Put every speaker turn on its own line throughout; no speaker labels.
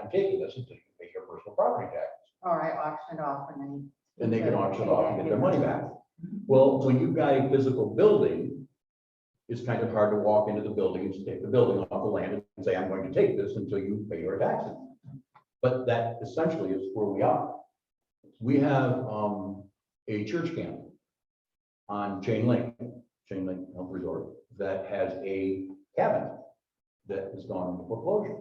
and taking this until you pay your personal property tax.
Or I auction it off and then.
And they can auction it off and get their money back. Well, when you've got a physical building, it's kind of hard to walk into the building and just take the building off the land and say, I'm going to take this until you pay your taxes. But that essentially is where we are. We have um, a church camp on Chain Link, Chain Link Health Resort, that has a cabin that has gone into foreclosure.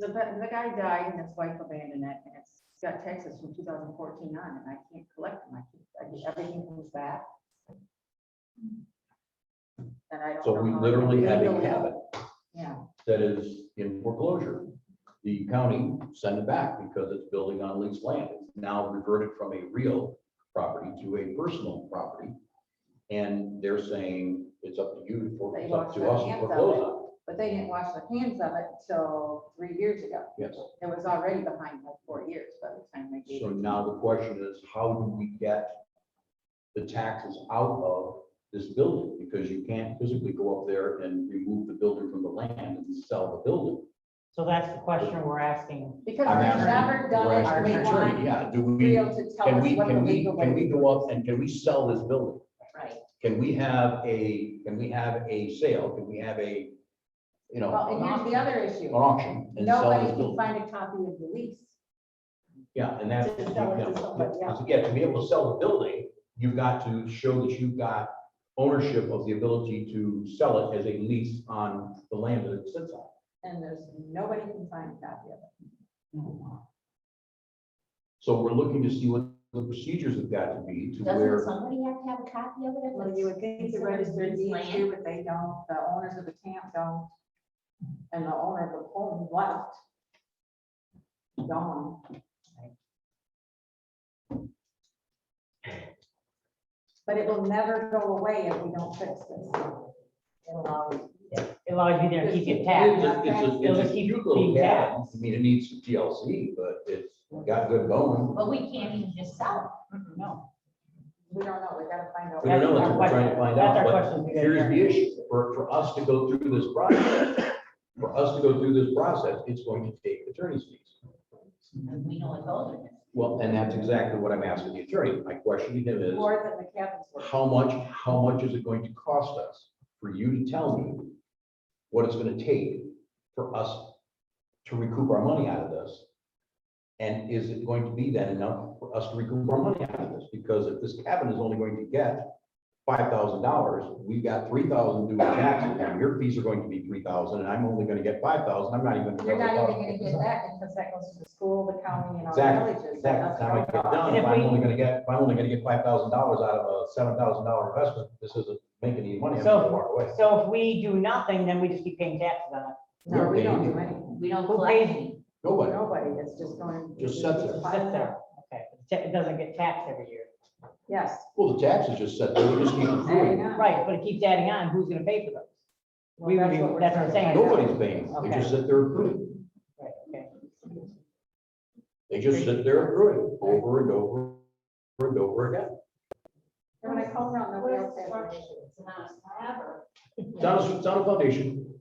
The, the guy died and his wife abandoned it and it's got taxes from two thousand fourteen on and I can't collect them. I keep, I get everything comes back. And I don't.
So
know
we
how-
literally have a
legally,
cabin.
Yeah,
that is in foreclosure. The county sent it back because it's building on leased land. It's now reverted from a real property to a personal property. And they're saying it's up to you, to for- it's up to us to foreclose on. it.
but they didn't wash their hands of it until three years ago.
Yes.
It was already behind like four years by the time they gave
So
it.
now the question is, how do we get the taxes out of this building? Because you can't physically go up there and remove the building from the land and sell the building.
So that's the question we're asking.
Because
I'm
we've
asking-
never done
we're
it,
asking
we
the attorney,
want
Yeah, do we?
Rio to tell
Can
us
we,
what the
can we,
legal
can
way.
we go up and can we sell this building?
Right.
Can we have a, can we have a sale? Can we have a, you know,
Well, and here's
an
the other issue.
auction and sell
Nobody
this
can
building?
find a copy of the lease.
Yeah, and that's,
to sell it to
yeah,
somebody
yeah,
else.
yeah, to be able to sell the building, you've got to show that you've got ownership of the ability to sell it as a lease on the land that it sits on.
And there's, nobody can find a copy of
So we're looking to see what the procedures have got to be to
Doesn't
where,
somebody have to have a copy of it?
it.
if
Well, you would think the registered deeds
Land.
too, but they don't, the owners of the camp don't. And the owner of the home left. Gone. But it will never go away if we don't fix this.
It allows it allows you there to keep it
it's
tapped.
a, it's a- it's a cute little cabin. I mean, it needs some TLC, but it's got good bone.
But we can't even just sell
No.
We don't know, we gotta find out.
We don't know, that's
our
what we're trying to
question.
find
That's
out,
our
but
question.
Here's the issue, for, for us to go through this process, for us to go through this process, it's going to take attorney's fees.
it, and we know what those are.
Well, and that's exactly what I'm asking the attorney. My question to him is,
More than the cabins were.
how much, how much is it going to cost us for you to tell me what it's gonna take for us to recoup our money out of this? And is it going to be that enough for us to recoup our money out of this? Because if this cabin is only going to get five thousand dollars, we've got three thousand due in taxes, and your fees are going to be three thousand, and I'm only gonna get five thousand, I'm not even.
You're not even gonna get that because that goes to the school, the county and all
Exactly,
the villages. that
Exactly, time I
doesn't
get
go
done,
on.
if
If
I'm
we-
only gonna get, if I'm only gonna get five thousand dollars out of a seven thousand dollar investment, this isn't making any money, I'm
So-
gonna walk away.
So if we do nothing, then we just keep paying taxes on it.
No, we don't do anything.
We don't
Who
collect
pays?
any.
Nobody,
Nobody, it's just going.
Just sits there.
It sits there. Okay. It doesn't get taxed every year.
Yes.
well, the taxes just set, there. we just keep accruing,
Right, but it keeps adding on. Who's gonna pay for those?
Well,
We would
that's
be-
what we're
that's what I'm
trying to
saying.
find out.
nobody's paying, they just sit there accruing,
Right, okay.
they just sit there accruing, over and over, over and over again.
And When I call around, nobody else has.
What
it.
is structure? It's not a slab or-
It's on a, it's on a foundation,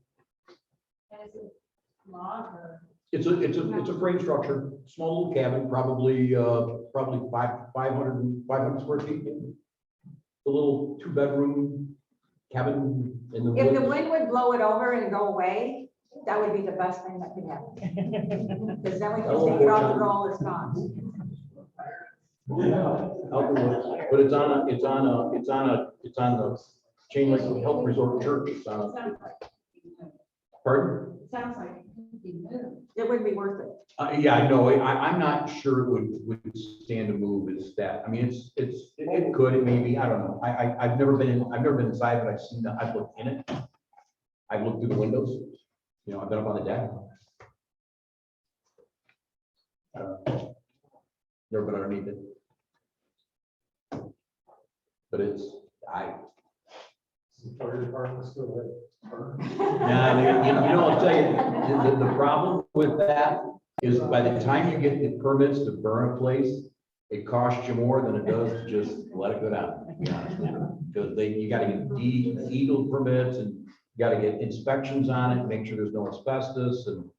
That is a log or-
it's a, it's a, it's a frame structure, small little cabin, probably, uh, probably five, five hundred and, five hundred square feet. A little two-bedroom cabin in the
If the
woods.
wind would blow it over and go away, that would be the best thing that could happen. Because then we
That
can
won't
take it
work
off
out.
the roll, it's gone.
Out in the woods. But it's on a, it's on a, it's on a, it's on the Chain Link Health Resort Church, it's on a,
Sounds like-
pardon?
Sounds like it could be moved.
It wouldn't be worth it.
Uh, yeah, no, I, I'm not sure it would, would stand a move as that, I mean, it's, it's, it- it could, it may be, I don't know. I, I, I've never been, in I've never been inside, but I've seen, the- I've looked in it. I've looked through the windows, you know, I've been up on the deck. I don't know. Uh, Never been underneath it. But it's, I,
Fire department's still there.
Nah, you- you you know, I'll tell you, the, the, the problem with that is by the time you get the permits to burn a place, it costs you more than it does to just let it go down, to be honest with you. Because they, you gotta get deed, deedle permits and you gotta get inspections on it, make sure there's no asbestos and